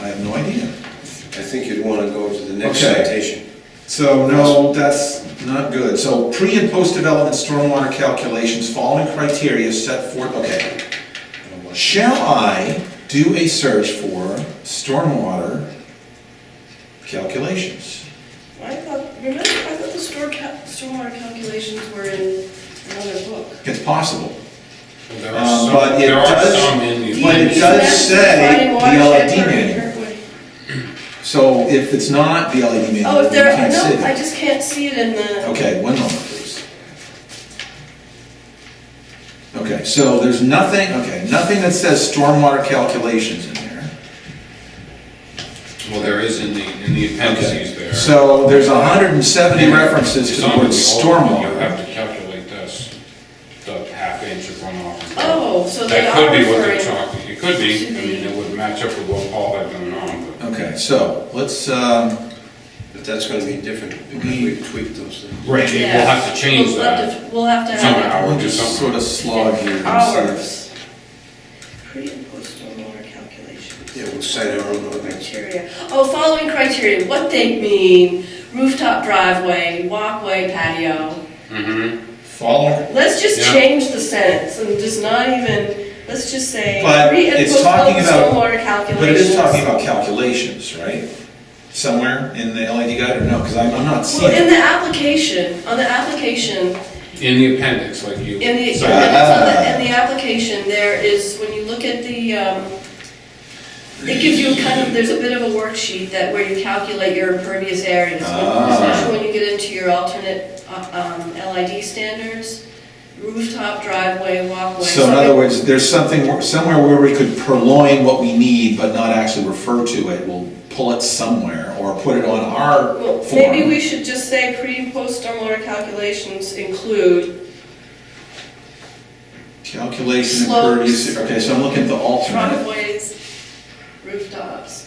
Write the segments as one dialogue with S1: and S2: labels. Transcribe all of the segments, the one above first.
S1: I have no idea.
S2: I think you'd want to go to the next
S1: Okay.
S2: citation.
S1: So, no, that's not good. So, pre and post-development stormwater calculations, following criteria set forth, okay. Shall I do a search for stormwater calculations?
S3: I thought, remember, I thought the storm ca- stormwater calculations were in another book.
S1: It's possible.
S4: There
S1: Um,
S4: are some,
S1: but it
S4: there are
S1: does-
S4: some in the.
S1: but it
S3: DEP
S1: does
S3: maps
S1: say
S3: providing watershed
S1: DLRD
S3: for
S1: manual.
S3: Kirkwood.
S1: So, if it's not the E LED
S3: Oh,
S1: manual, you
S3: if there,
S1: can't see
S3: no, I
S1: it.
S3: just can't see it in the,
S1: Okay, one moment, please. Okay, so there's nothing, okay, nothing that says stormwater calculations in there.
S4: Well, there is in the, in the appendices there.
S1: So there's hundred and seventy references to the word
S4: It's on the old one, You
S1: stormwater.
S4: have to calculate this, the half inch of runoff.
S3: Oh, so they
S4: That could
S3: are
S4: be what they're
S3: referring
S4: talking, it could be,
S3: to
S4: I mean,
S3: the-
S4: it would match up with what Paul had going on, but.
S1: Okay, so let's, um,
S2: But that's going to be different because we tweaked those things.
S4: Right,
S3: yeah.
S4: we'll have to change
S3: We'll have
S4: that.
S3: to- We'll have to have
S4: Somehow.
S3: it.
S4: would
S1: we'll
S4: do
S1: just
S4: something.
S1: sort of slog here. and see
S3: Hours. Pre and post stormwater calculations.
S2: Yeah, we'll cite our own ordinance.
S3: Criteria. Oh, following criteria, what they mean, rooftop driveway, walkway, patio.
S4: Mm-hmm,
S1: if- Following,
S3: Let's just
S4: Yeah.
S3: change the sentence and just not even, let's just say,
S1: But
S3: pre and
S1: it's
S3: post
S1: talking about-
S3: stormwater calculations.
S1: but it is talking about calculations, right? Somewhere in the LED guide or no, because I'm, I'm not
S3: Well,
S1: seeing
S3: in
S1: it.
S3: the application, on the application,
S4: in the appendix, like you.
S3: in the, in the,
S1: Ah.
S4: cited.
S3: in the application, there is, when you look at the, um, it gives you kind of, there's a bit of a worksheet that where you calculate your impervious areas.
S1: Ah.
S3: Especially when you get into your alternate, uh, um, LID standards, rooftop, driveway, walkway.
S1: So in other words, there's something, where- somewhere where we could purloin what we need but not actually refer to it. We'll pull it somewhere or put it on our
S3: Well,
S1: form.
S3: maybe we should just say pre and post stormwater calculations include
S1: Calculation
S3: Slopes.
S1: impervious, okay, so I'm looking at the alternate.
S3: driveways, rooftops.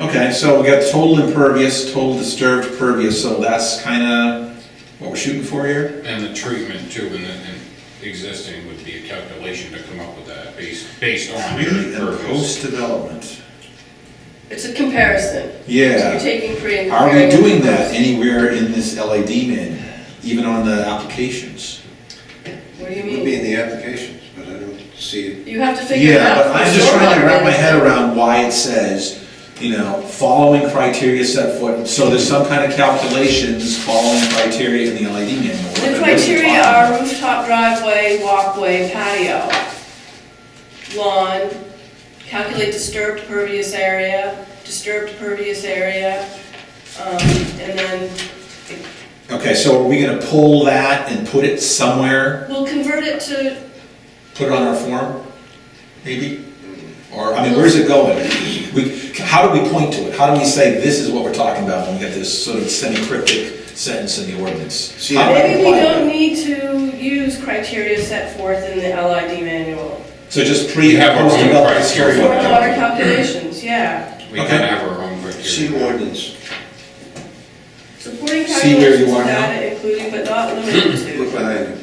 S1: Okay, so we got total impervious, total disturbed pervious, so that's kinda what we're shooting for here?
S4: And the treatment too, and then, and existing would be a calculation to come up with that, based, based on your
S1: And
S4: purpose.
S1: post-development.
S3: It's a comparison. So you're
S1: Yeah,
S3: taking pre and
S1: are we
S3: comparing
S1: doing
S3: the
S1: that
S3: post.
S1: anywhere in this LAD manual, even on the applications?
S3: What do you
S2: It would be
S3: mean?
S2: in the applications, but I don't see it.
S3: You have to figure it
S1: Yeah,
S3: out.
S1: but I'm just trying to wrap my head around why it says, you know, following criteria set forth, so there's some kind of calculations following criteria in the LAD manual. What
S3: The
S1: is it
S3: criteria
S1: talking
S3: are rooftop, driveway, walkway, patio, lawn, calculate disturbed pervious area, disturbed pervious area, um, and then
S1: about? Okay, so are we gonna pull that and put it somewhere
S3: we'll convert it to,
S1: put it on our form, maybe? Or, I mean, where's it going? We, how do we point to it? How do we say this is what we're talking about when we get this sort of semi-cryptic sentence in the ordinance?
S2: See,
S1: How do we
S3: maybe we
S1: apply
S3: don't
S1: that?
S3: need to use criteria set forth in the LID manual.
S1: So just pre,
S4: We have our own
S1: post development
S4: criteria.
S1: stormwater.
S3: Stormwater calculations, yeah.
S4: We can
S1: Okay.
S4: have our own criteria.
S2: See ordinance.
S3: Supporting
S1: See where you
S3: calculations
S1: are
S3: of
S1: now?
S3: data including but not limited to.
S2: Look behind you.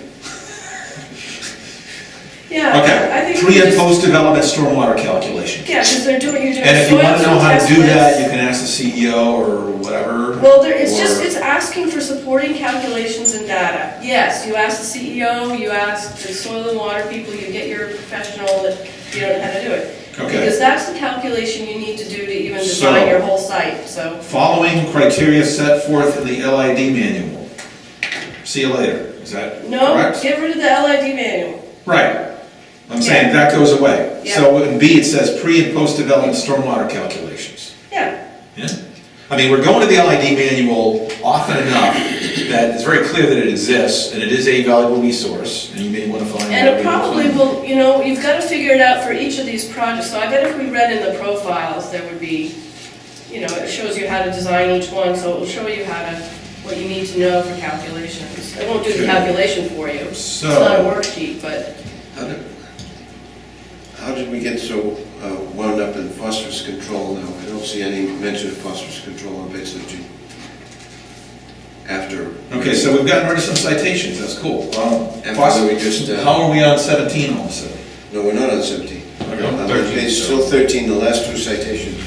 S3: Yeah, I
S1: Okay,
S3: think we
S1: pre and
S3: just-
S1: post development stormwater calculation.
S3: Yeah, because they're doing, you're doing.
S1: And if you
S3: soil
S1: wanna know how to
S3: test
S1: do that,
S3: lists.
S1: you can ask the CEO or whatever.
S3: Well, there, it's just,
S1: or-
S3: it's asking for supporting calculations and data. Yes, you ask the CEO, you ask the soil and water people, you get your professional that, you don't know how to do it.
S1: Okay,
S3: Because that's the calculation you need to do to even
S1: So-
S3: design your whole site, so.
S1: following criteria set forth in the LID manual. See you later, is that correct?
S3: No, get rid of the LID manual.
S1: Right, I'm saying that goes away.
S3: Yeah.
S1: So in B, it says pre and post-development stormwater calculations.
S3: Yeah,
S1: Yeah. I mean, we're going to the LID manual often enough that it's very clear that it exists, and it is a valuable resource, and you may want to find.
S3: and it
S1: valuable
S3: probably
S1: things.
S3: will, you know, you've got to figure it out for each of these projects. So I bet if we read in the profiles, there would be, you know, it shows you how to design each one, so it will show you how to, what you need to know for calculations. It won't do the
S1: Okay.
S3: calculation for you. It's not a
S1: So,
S3: worksheet, but
S2: How did- How did we get so uh, wound up in phosphorus control now? I don't see any mention of phosphorus control on page 13. After.
S1: okay, so we've gotten rid of some citations, that's cool. Um,
S2: And
S1: Fox-
S2: whether we just, uh,
S1: How are we on seventeen all of a sudden?
S2: No, we're not on 17.
S1: Okay.
S2: On
S4: 13,
S2: page,
S4: so-
S2: still 13, the last two citations.